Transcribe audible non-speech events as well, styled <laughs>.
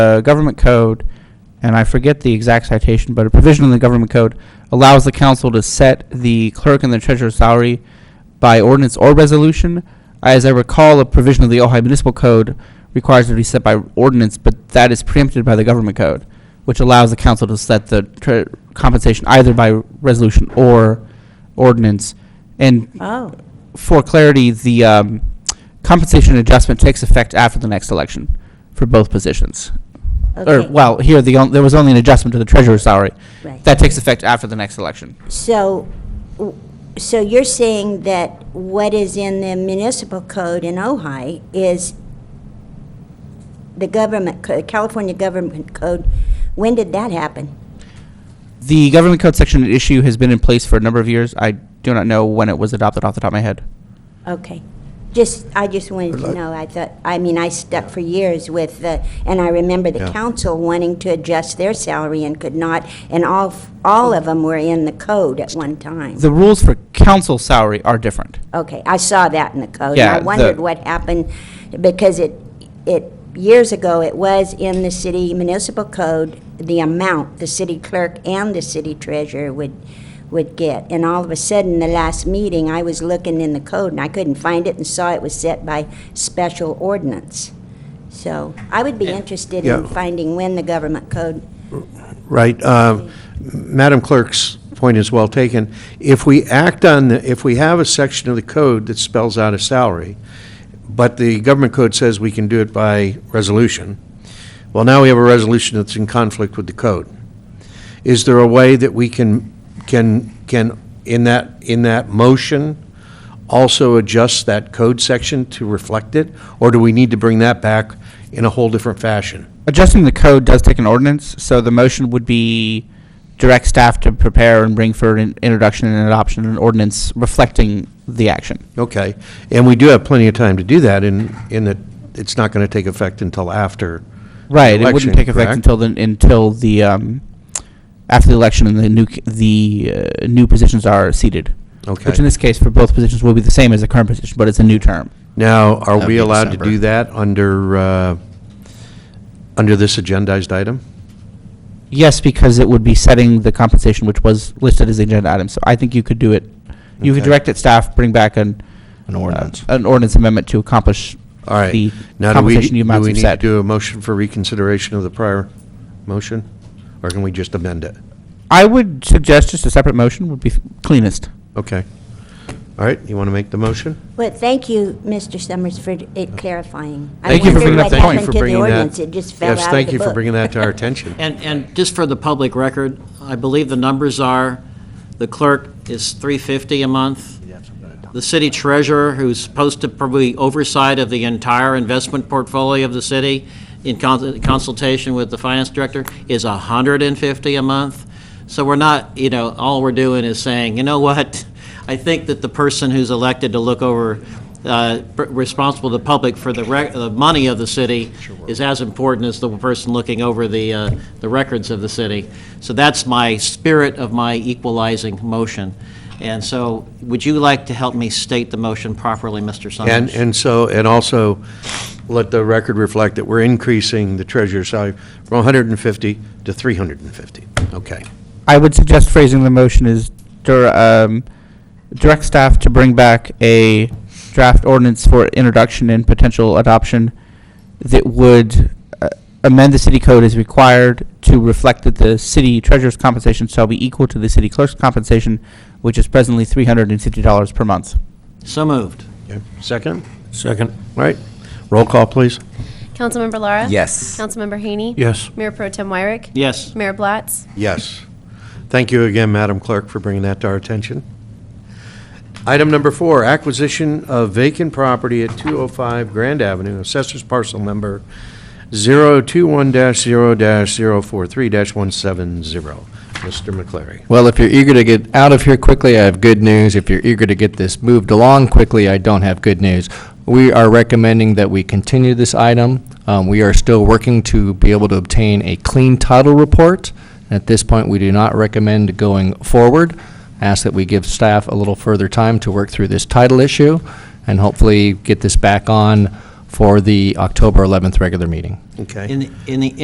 uh, government code, and I forget the exact citation, but a provision in the government code allows the council to set the clerk and the treasurer's salary by ordinance or resolution. As I recall, a provision of the Ojai Municipal Code requires it to be set by ordinance, but that is preempted by the government code, which allows the council to set the tre- compensation either by resolution or ordinance. And Oh, for clarity, the um, compensation adjustment takes effect after the next election for both positions. Or, Okay. well, here, the, on- there was only an adjustment to the treasurer's salary. Right. That takes effect after the next election. so, w- so you're saying that what is in the municipal code in Ojai is the government, co- California government code, when did that happen? The government code section at issue has been in place for a number of years. I do not know when it was adopted off the top of my head. Okay. Just, I just wanted to know, I thought, I mean, I stuck for years with the, and I remember the Yeah. council wanting to adjust their salary and could not, and all, f- all of them were in the code at one time. The rules for council salary are different. Okay, I saw that in the code. and Yeah, I the- wondered what happened, because it, it, years ago, it was in the city municipal code, the amount the city clerk and the city treasurer would, would get. And all of a sudden, the last meeting, I was looking in the code, and I couldn't find it, and saw it was set by special ordinance. So I would be interested in Yeah. finding when the government code, Right. uh, Madam Clerk's point is well taken. If we act on, the- if we have a section of the code that spells out a salary, but the government code says we can do it by resolution, well, now we have a resolution that's in conflict with the code. Is there a way that we can, can, can, in that, in that motion, also adjust that code section to reflect it? Or do we need to bring that back in a whole different fashion? Adjusting the code does take an ordinance, so the motion would be direct staff to prepare and bring for an introduction and adoption an ordinance reflecting the action. Okay, and we do have plenty of time to do that in, in that it's not going to take effect until after. Right, it election, wouldn't take effect correct? until the, until the, um, after the election and the new, c- the, uh, new positions are seated. Which in Okay. this case, for both positions, will be the same as the current position, but it's a new term. Now, are That'd we be allowed to December. do that under, uh, under this agendized item? Yes, because it would be setting the compensation, which was listed as the agenda item, so I think you could do it. You could Okay. direct at staff, bring back an. An ordinance. uh, An ordinance amendment to accomplish All right. the Now, do we- compensation you amounts Do we you've need to set. do a motion for reconsideration of the prior motion? Or can we just amend it? I would suggest just a separate motion would be f- cleanest. Okay. All right, you want to make the motion? well, thank you, Mr. Summers, for it clarifying. I Thank you for wondered bringing what up that point. happened to the bringing that- ordinance. It just fell out of the Yes, thank you for book. bringing that to <laughs> our attention. And, and just for the public record, I believe the numbers are, the clerk is 350 a month. The city treasurer, who's supposed to probably oversight of the entire investment portfolio of the city in con- consultation with the finance director, is 150 a month. So we're not, you know, all we're doing is saying, you know what? I think that the person who's elected to look over, uh, pr- responsible to the public for the rec, the money of the city is as important as the person looking over the, uh, the records of the city. So that's my spirit of my equalizing motion. And so, would you like to help me state the motion properly, Mr. Summers? And, and so, and also, let the record reflect that we're increasing the treasurer's salary from 150 to 350. Okay. I would suggest phrasing the motion as dir- um, direct staff to bring back a draft ordinance for introduction and potential adoption that would uh, amend the city code as required to reflect that the city treasurer's compensation shall be equal to the city clerk's compensation, which is presently three hundred and fifty dollars per month. So moved. Okay. Second? Second. All right. Roll call, please. Councilmember Lara? Yes. Councilmember Haney? Yes. Mayor Pro Tem Wyrick? Yes. Mayor Blatz? Yes. Thank you again, Madam Clerk, for bringing that to our attention. Item number four, acquisition of vacant property at 205 Grand Avenue, Assessor's Parcel Number 021-0-043-170. Mr. McCleary. Well, if you're eager to get out of here quickly, I have good news. If you're eager to get this moved along quickly, I don't have good news. We are recommending that we continue this item. Um, We are still working to be able to obtain a clean title report. At this point, we do not recommend going forward. Ask that we give staff a little further time to work through this title issue and hopefully get this back on for the October 11th regular meeting. Okay. In, the- in the